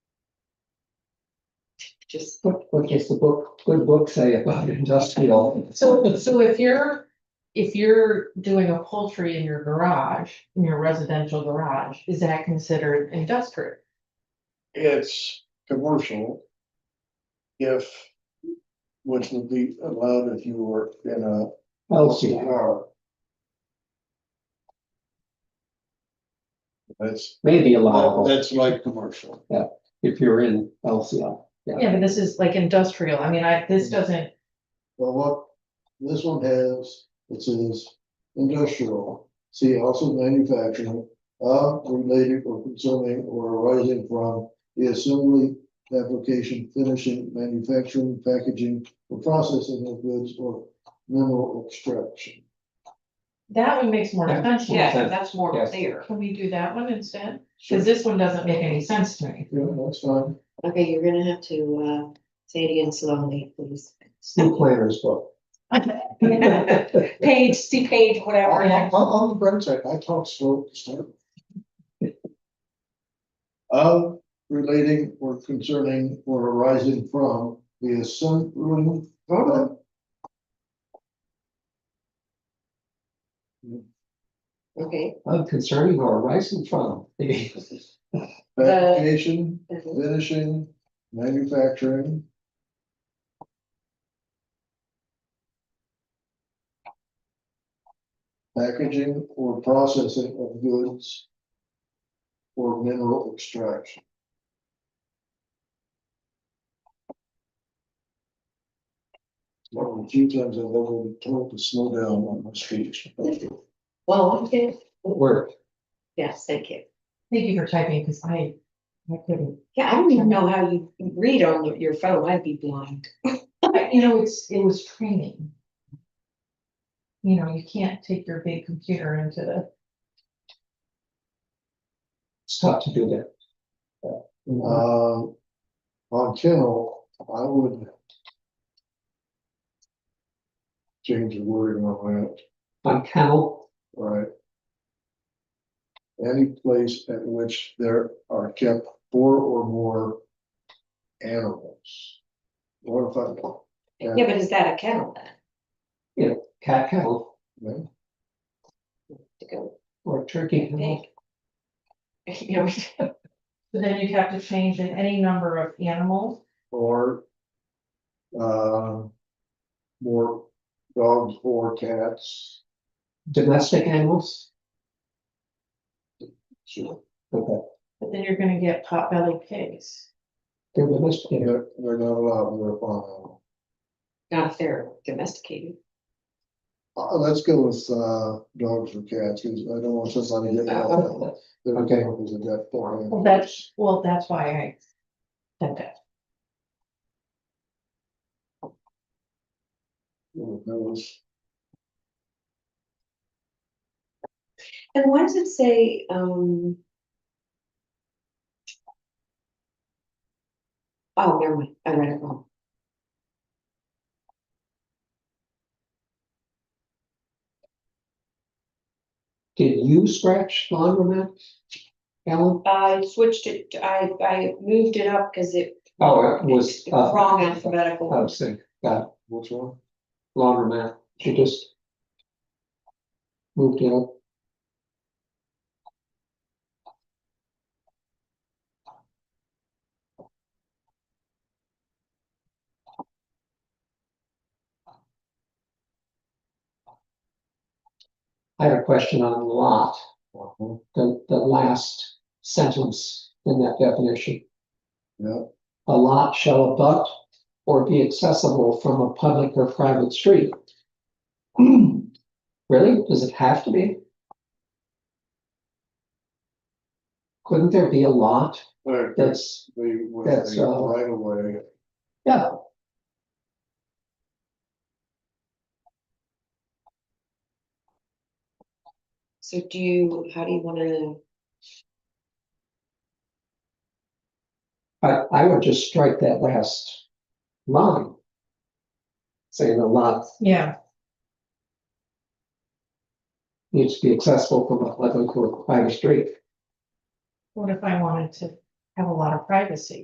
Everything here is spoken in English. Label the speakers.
Speaker 1: just.
Speaker 2: What, what does the book, good book say about industrial?
Speaker 1: So, so if you're, if you're doing a poultry in your garage, in your residential garage, is that considered industrial?
Speaker 3: It's commercial. If, which would be allowed if you were in a
Speaker 2: Healthy,
Speaker 3: LCR. That's,
Speaker 2: maybe allowable
Speaker 3: that's like commercial.
Speaker 2: if you're in LCL.
Speaker 1: Yeah, but this is like industrial. I mean, I, this doesn't,
Speaker 3: Well, what this one has, it says industrial, see also manufacturing, of related or consuming or arising from the assembly, application, finishing, manufacturing, packaging, or processing of goods or mineral extraction.
Speaker 1: that one makes more
Speaker 2: Yeah.
Speaker 1: sense.
Speaker 2: Yeah.
Speaker 4: Yeah, that's more
Speaker 2: Yes.
Speaker 4: clear.
Speaker 1: Can we do that one instead? Cause this one doesn't make any sense to me.
Speaker 3: Yeah, that's fine.
Speaker 5: Okay, you're gonna have to uh say it again slowly, please.
Speaker 3: New players, but.
Speaker 4: Page, see page, whatever.
Speaker 3: On, on the bright side, I talk slow to start. with. Of relating or concerning or arising from the assembling.
Speaker 5: Okay,
Speaker 2: I'm concerning or arising from.
Speaker 3: Fabrication,
Speaker 5: mhm,
Speaker 3: finishing, manufacturing. Packaging or processing of goods. Or mineral extraction. One of the few times I've ever been told to slow down on my speech.
Speaker 5: well, okay,
Speaker 2: Work.
Speaker 5: yes, thank you.
Speaker 1: Thank you for typing, cause I, I couldn't.
Speaker 5: Yeah, I don't even know how you read on your phone, I'd be blind.
Speaker 1: But, You know, it's, it was training. You know, you can't take your big computer into the.
Speaker 2: It's tough to do that. Uh,
Speaker 3: Uh, on kennel, I would. Change the wording on that.
Speaker 2: On kennel,
Speaker 3: Right. Any place at which there are kept four or more animals. What if I?
Speaker 5: Yeah, but is that a kennel then?
Speaker 2: cat kennel
Speaker 3: no?
Speaker 5: To go
Speaker 2: or turkey kennel.
Speaker 5: big? You know,
Speaker 1: But then you'd have to change in any number of animals.
Speaker 3: Or. Uh. More dogs or cats.
Speaker 2: Domestic animals.
Speaker 3: Sure.
Speaker 2: Okay,
Speaker 1: But then you're gonna get potbelly pigs.
Speaker 2: they're domestic. animals.
Speaker 3: They're, they're not allowed in their farm animal.
Speaker 5: not if they're domesticated.
Speaker 3: Uh, let's go with, uh, dogs or cats, 'cause I don't want somebody to get. out. They're okay, because they've got four animals.
Speaker 1: Well, that's, well, that's why I said that.
Speaker 3: Well, that was-
Speaker 5: And why does it say, um? Oh, never mind, I read it wrong.
Speaker 2: Did you scratch lawn on that? Alan?
Speaker 5: I switched it, I, I moved it up because it.
Speaker 2: Oh, it was. uh,
Speaker 5: Wrong alphabetical.
Speaker 2: I was thinking.
Speaker 3: Which one?
Speaker 2: laundromat, she just moved out. I had a question on lot,
Speaker 3: Uh-huh.
Speaker 2: the, the last sentence in that definition.
Speaker 3: Yeah,
Speaker 2: A lot shall abut or be accessible from a public or private street. Really? Does it have to be? Couldn't there be a lot
Speaker 3: where the,
Speaker 2: that's,
Speaker 3: with
Speaker 2: that's,
Speaker 3: the
Speaker 2: uh,
Speaker 3: right of way,
Speaker 2: yeah,
Speaker 5: So do you, how do you wanna,
Speaker 2: I, I would just strike that last line. Saying a lot
Speaker 1: Yeah.
Speaker 2: needs to be accessible from a public or private street.
Speaker 1: What if I wanted to have a lot of privacy?